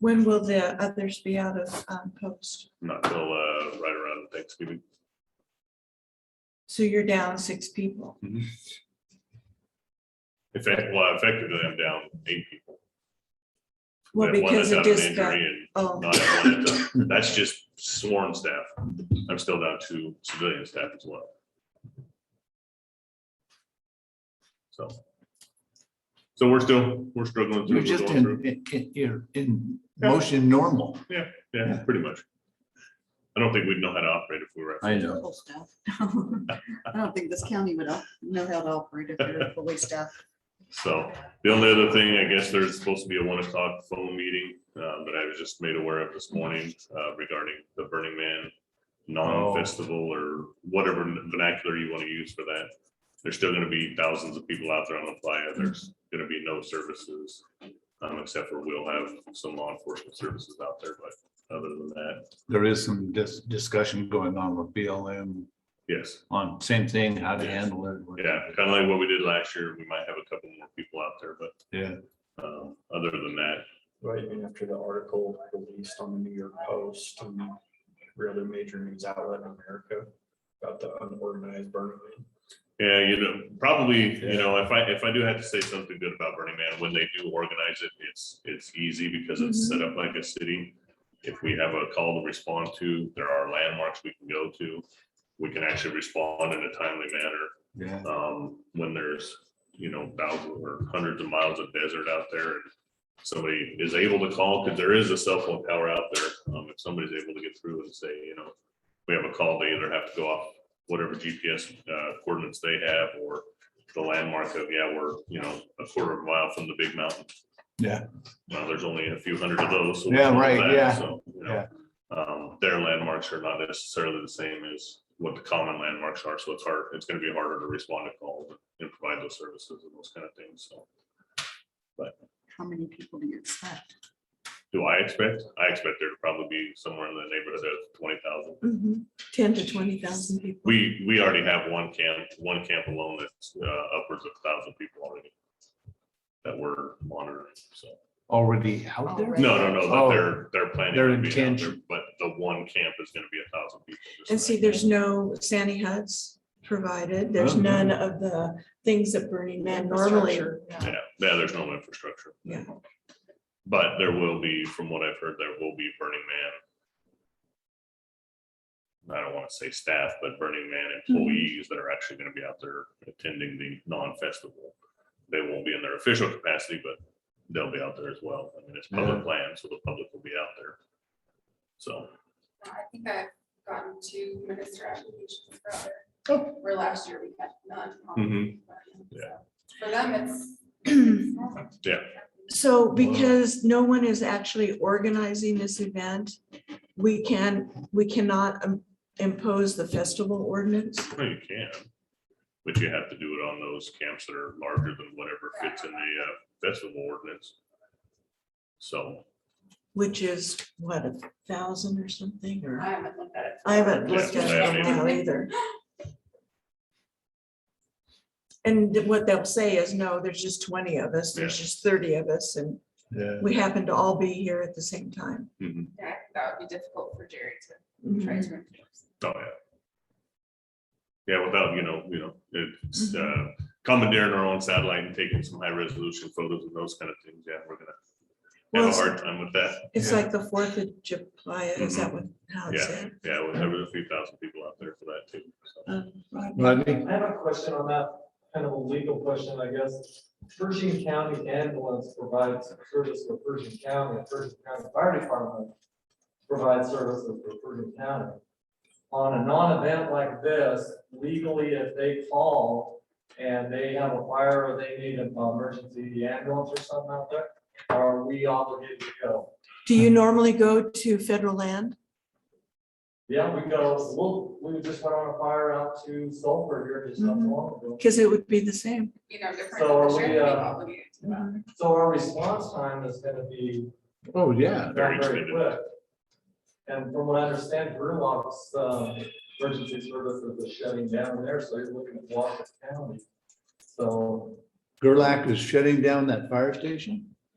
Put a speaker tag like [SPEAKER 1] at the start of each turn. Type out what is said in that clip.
[SPEAKER 1] When will the others be out of um, post?
[SPEAKER 2] not till uh, right around Thanksgiving.
[SPEAKER 1] So you're down six people.
[SPEAKER 3] Mm-hmm.
[SPEAKER 2] In fact, well, effectively, I'm down eight people.
[SPEAKER 1] Well,
[SPEAKER 2] We have one
[SPEAKER 1] because of
[SPEAKER 2] that's out an
[SPEAKER 1] disco.
[SPEAKER 2] injury and
[SPEAKER 1] Oh,
[SPEAKER 2] not have one that's- That's just sworn staff. I'm still down two civilian staff as well. So. So we're still, we're struggling. through,
[SPEAKER 3] You're
[SPEAKER 2] we're
[SPEAKER 3] just
[SPEAKER 2] going through.
[SPEAKER 3] in, in- in, you're in
[SPEAKER 2] Yeah.
[SPEAKER 3] motion normal.
[SPEAKER 2] Yeah, pretty much. I don't think we'd know how to operate if we were. at-
[SPEAKER 3] I know.
[SPEAKER 4] full staff. I don't think this county would op- know how to operate if they're fully staffed.
[SPEAKER 2] So the only other thing, I guess there's supposed to be a one o'clock phone meeting uh, that I was just made aware of this morning uh, regarding the Burning Man non-festival or whatever vernacular you want to use for that. There's still going to be thousands of people out there on the playa. There's going to be no services. um, Except for we'll have some law enforcement services out there, but other than that,
[SPEAKER 3] There is some dis- discussion going on with BLM
[SPEAKER 2] yes.
[SPEAKER 3] on same thing, how to
[SPEAKER 2] Yes.
[SPEAKER 3] handle it. what-
[SPEAKER 2] Yeah, kind of like what we did last year. We might have a couple more people out there, but
[SPEAKER 3] Yeah,
[SPEAKER 2] um, other than that,
[SPEAKER 5] Right, even after the article released on the New York Post and every other major news outlet in America about the unorganized burning. Man.
[SPEAKER 2] yeah, you know, probably, you know, if I, if I do have to say something good about Burning Man, when they do organize it, it's, it's easy because it's set up like a city. If we have a call to respond to, there are landmarks we can go to. We can actually respond in a timely manner.
[SPEAKER 3] yeah.
[SPEAKER 2] um, when there's, you know, thousands or hundreds of miles of desert out there. and Somebody is able to call, because there is a cell phone tower out there, um, if somebody's able to get through and say, you know, we have a call, they either have to go off whatever GPS uh, coordinates they have, or the landmark of, yeah, we're, you know, a quarter of a mile from the big mountain.
[SPEAKER 3] Yeah.
[SPEAKER 2] Well, there's only a few hundred of those. so we
[SPEAKER 3] Yeah,
[SPEAKER 2] know
[SPEAKER 3] right,
[SPEAKER 2] that,
[SPEAKER 3] yeah,
[SPEAKER 2] so, you know, um, their landmarks are not necessarily the same as what the common landmarks are, so it's hard, it's gonna be harder to respond to calls and provide those services and those kind of things, so.
[SPEAKER 4] How many people do you expect?
[SPEAKER 2] Do I expect? I expect there to probably be somewhere in the neighborhood of twenty thousand.
[SPEAKER 1] mhm. ten to twenty thousand people.
[SPEAKER 2] We, we already have one camp, one camp alone that's uh, upwards of thousand people already. That we're monitoring, so.
[SPEAKER 3] Already out there?
[SPEAKER 4] Already.
[SPEAKER 2] No, no, no, but
[SPEAKER 3] Oh.
[SPEAKER 2] they're, they're planning.
[SPEAKER 3] Their
[SPEAKER 2] on being out there,
[SPEAKER 3] intention.
[SPEAKER 2] But the one camp is gonna be a thousand people. just
[SPEAKER 1] And
[SPEAKER 2] like
[SPEAKER 1] see,
[SPEAKER 2] that.
[SPEAKER 1] there's no Sandy huts provided. There's
[SPEAKER 3] Oh, no.
[SPEAKER 1] none of the things that Burning Man normally.
[SPEAKER 2] Yeah, yeah, there's no infrastructure.
[SPEAKER 1] Yeah.
[SPEAKER 2] But there will be, from what I've heard, there will be Burning Man. I don't want to say staff, but Burning Man employees that are actually going to be out there attending the non-festival. They won't be in their official capacity, but they'll be out there as well. I mean, it's public land, so the public will be out there. So,
[SPEAKER 6] Uh, I think I've gotten two minister applications for other,
[SPEAKER 1] Oh.
[SPEAKER 6] where last year we had none.
[SPEAKER 2] Mhm.
[SPEAKER 6] So, For them, it's- it's. normal.
[SPEAKER 2] yeah,
[SPEAKER 1] So because no one is actually organizing this event, we can, we cannot um, impose the festival ordinance.
[SPEAKER 2] well, you can. But you have to do it on those camps that are larger than whatever fits in the uh, festival ordinance. So.
[SPEAKER 1] Which is what, a thousand or something
[SPEAKER 6] I
[SPEAKER 1] or?
[SPEAKER 6] haven't looked at it.
[SPEAKER 1] I haven't looked
[SPEAKER 2] Yeah,
[SPEAKER 1] at
[SPEAKER 2] I
[SPEAKER 1] it in a
[SPEAKER 2] haven't
[SPEAKER 1] while either. And what they'll say is, no, there's just twenty of us, there's just thirty of us, and
[SPEAKER 3] Yeah.
[SPEAKER 1] we happen to all be here at the same time.
[SPEAKER 2] Mhm.
[SPEAKER 6] Yeah, I think That would be difficult for Jerry to try
[SPEAKER 1] Mhm.
[SPEAKER 6] to enforce.
[SPEAKER 2] Oh, yeah. Yeah, without, you know, you know, it's uh,
[SPEAKER 1] Mm-hmm.
[SPEAKER 2] commandeering our own satellite and taking some high resolution photos and those kind of things. Yeah, we're gonna
[SPEAKER 1] Well,
[SPEAKER 2] have a
[SPEAKER 1] it's-
[SPEAKER 2] hard time with that.
[SPEAKER 1] It's
[SPEAKER 3] Yeah.
[SPEAKER 1] like the Fourth of July, is that what, how it's
[SPEAKER 2] Yeah,
[SPEAKER 1] said?
[SPEAKER 2] yeah, we'll have a few thousand people out there for that too. so.
[SPEAKER 1] Um, right.
[SPEAKER 3] Rodney?
[SPEAKER 7] I have a question on that, kind of a legal question, I guess. Pershing County ambulance provides service for Pershing County, and Pershing County Fire Department provides services for Pershing County. On a non-event like this, legally, if they call and they have a fire or they need an emergency ambulance or something out there, are we obligated to go?
[SPEAKER 1] Do you normally go to federal land?
[SPEAKER 7] Yeah, we go, we, we just went on a fire out to Sulphur here just not too long ago.
[SPEAKER 1] Because it would be the same.
[SPEAKER 6] You know, different.
[SPEAKER 7] So are
[SPEAKER 6] the sheriff
[SPEAKER 7] we,
[SPEAKER 6] may be
[SPEAKER 7] uh,
[SPEAKER 6] obligated to that.
[SPEAKER 7] So our response time is gonna be
[SPEAKER 3] Oh, yeah.
[SPEAKER 7] not
[SPEAKER 2] Very
[SPEAKER 7] very
[SPEAKER 2] extended.
[SPEAKER 7] quick. And from what I understand, Brewlock's, um, emergency services is shutting down there, so you're looking at Washington County. So,
[SPEAKER 3] Gerlach is shutting down that fire station?